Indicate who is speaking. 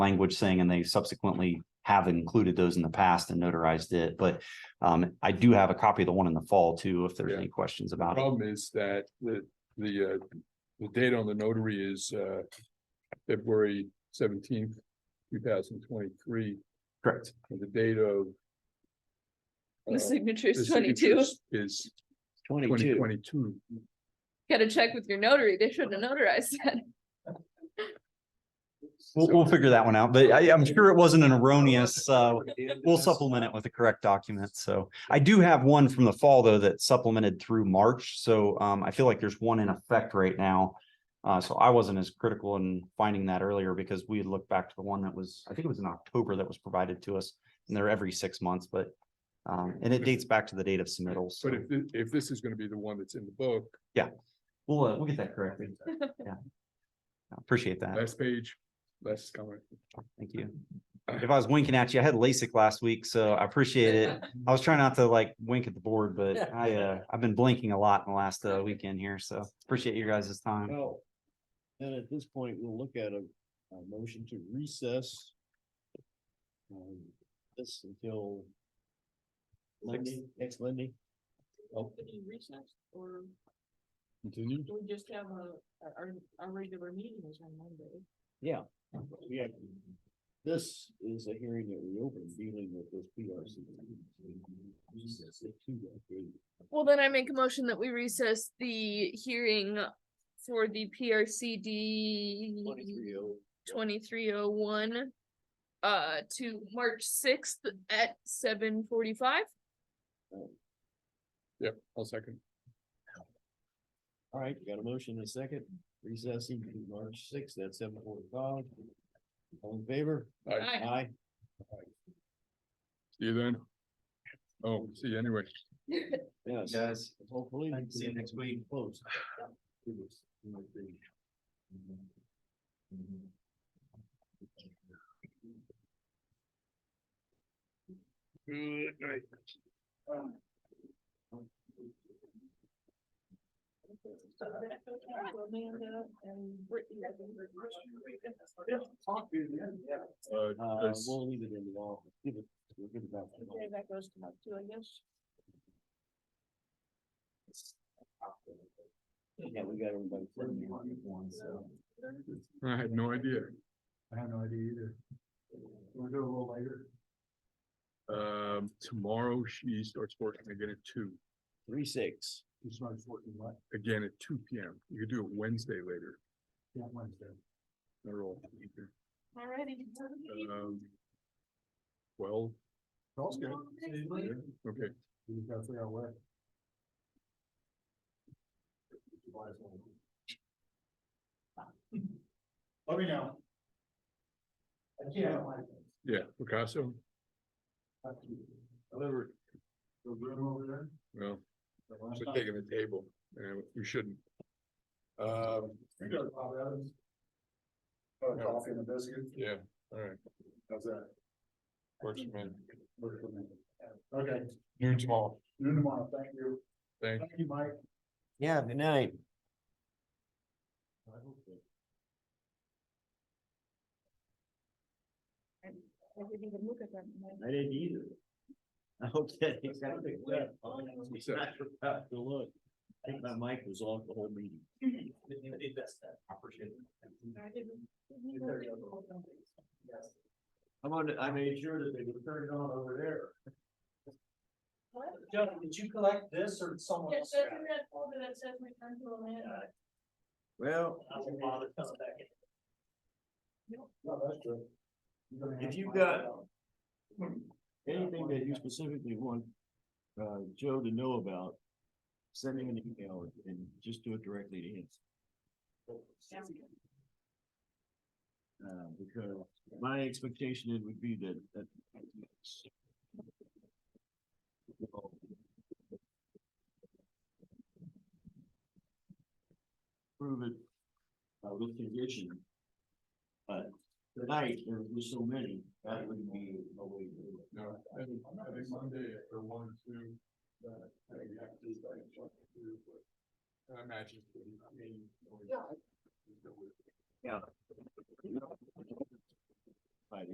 Speaker 1: language saying, and they subsequently have included those in the past and notarized it, but um, I do have a copy of the one in the fall too, if there's
Speaker 2: Yeah.
Speaker 1: any questions
Speaker 2: The
Speaker 1: about it.
Speaker 2: Problem is that the, the, uh, the date on the notary is, uh, February seventeenth, two thousand twenty-three,
Speaker 1: Correct.
Speaker 2: and the date of. uh,
Speaker 3: Oh,
Speaker 4: The signature
Speaker 2: the
Speaker 4: is twenty-two.
Speaker 2: signatures Is twenty
Speaker 3: Twenty-two.
Speaker 2: twenty-two.
Speaker 4: Gotta check with your notary. They should have notarized that.
Speaker 1: We'll, we'll figure that one out, but I, I'm sure it wasn't an erroneous, uh, we'll supplement it with the correct document. So I do have one from the fall though that supplemented through March. So um, I feel like there's one in effect right now. Uh, so I wasn't as critical in finding that earlier because we had looked back to the one that was, I think it was in October that was provided to us. And they're every six months, but um, and it dates back to the date of submittals. So
Speaker 2: But if, thi- if this is gonna be the one that's in the book,
Speaker 1: we'll, uh, we'll get that corrected. Yeah. I Appreciate that.
Speaker 2: last page, last comment.
Speaker 1: Thank you. If I was winking at you, I had LASIK last week, so I appreciate it. I was trying not to like wink at the board, but I, uh, I've been blinking a lot in the last, uh, weekend here, so appreciate you guys' time.
Speaker 3: Well, Then at this point, we'll look at a, a motion to recess. um, This until. Monday, next Monday. Oh,
Speaker 5: Opening recess, or
Speaker 3: continue?
Speaker 5: do we just have a, our- our, our regular meeting is on Monday?
Speaker 3: Yeah. we have- This is a hearing that we opened dealing with this PRC. Recess at two, I think.
Speaker 4: Well, then I make a motion that we recess the hearing for the PRCD
Speaker 3: 23 oh.
Speaker 4: twenty-three oh one uh, to March sixth at seven forty-five.
Speaker 2: Yep, I'll second.
Speaker 3: All right, we got a motion and a second, recessing to March sixth at seven forty-five. All in favor?
Speaker 2: All right,
Speaker 4: Aye.
Speaker 3: Aye.
Speaker 2: see you then. Oh, see you anyway.
Speaker 3: Yes.
Speaker 1: Guys.
Speaker 3: Hopefully.
Speaker 1: Thanks, see you next week. Mm-hmm.
Speaker 3: Close.
Speaker 2: Good night. Uh,
Speaker 3: Uh,
Speaker 2: that's-
Speaker 3: we'll leave it in the office. Give it, we'll give it back. to the
Speaker 5: Okay, that goes to Mark too, I guess.
Speaker 3: office. Yeah, we got everybody.
Speaker 2: I had no idea. I have no idea either. We'll do a little later. Um, tomorrow she starts working again at two,
Speaker 3: Three, six.
Speaker 2: again at two P M. You could do it Wednesday later. Yeah, Wednesday. They're all. either.
Speaker 5: Alrighty.
Speaker 2: Um. Well. Okay. Okay.
Speaker 6: Let me know. I can't.
Speaker 2: Yeah, Picasso,
Speaker 6: Delivered. The room over there?
Speaker 2: well,
Speaker 6: The
Speaker 2: I'm
Speaker 6: last
Speaker 2: just
Speaker 6: time.
Speaker 2: taking the table, and you shouldn't. Um,
Speaker 6: You go to Bob Evans. Oh, coffee and a biscuit,
Speaker 2: yeah, all right,
Speaker 6: how's that?
Speaker 2: works for me.
Speaker 6: Work for me. Okay,
Speaker 2: Noon tomorrow.
Speaker 6: noon tomorrow, thank you.
Speaker 2: Thank
Speaker 6: Thank you, Mike.
Speaker 3: Yeah, good night.
Speaker 5: I didn't even look at that.
Speaker 3: I didn't either. Okay.
Speaker 2: What's that?
Speaker 3: Good look. I think my mic was off the whole meeting.
Speaker 5: I didn't- didn't even look at it.
Speaker 3: I'm on, I made sure that they would turn it on over there.
Speaker 5: What?
Speaker 6: Joe, did you collect this or someone
Speaker 5: It says in that folder that says return to Orlando.
Speaker 3: Well,
Speaker 6: No, that's true. You're gonna
Speaker 3: If
Speaker 6: have to
Speaker 3: you
Speaker 6: find
Speaker 3: got-
Speaker 6: out.
Speaker 3: anything that you specifically want, uh, Joe to know about, send him an email and just do it directly to him. Uh, because my expectation it would be that, that. Prove it, uh, with condition. But tonight, there were so many, that would be a way to do it.
Speaker 2: No, I think, I think Monday or one, or two, that, I think you have to decide what to do, but. I imagine, I mean.
Speaker 3: Yeah.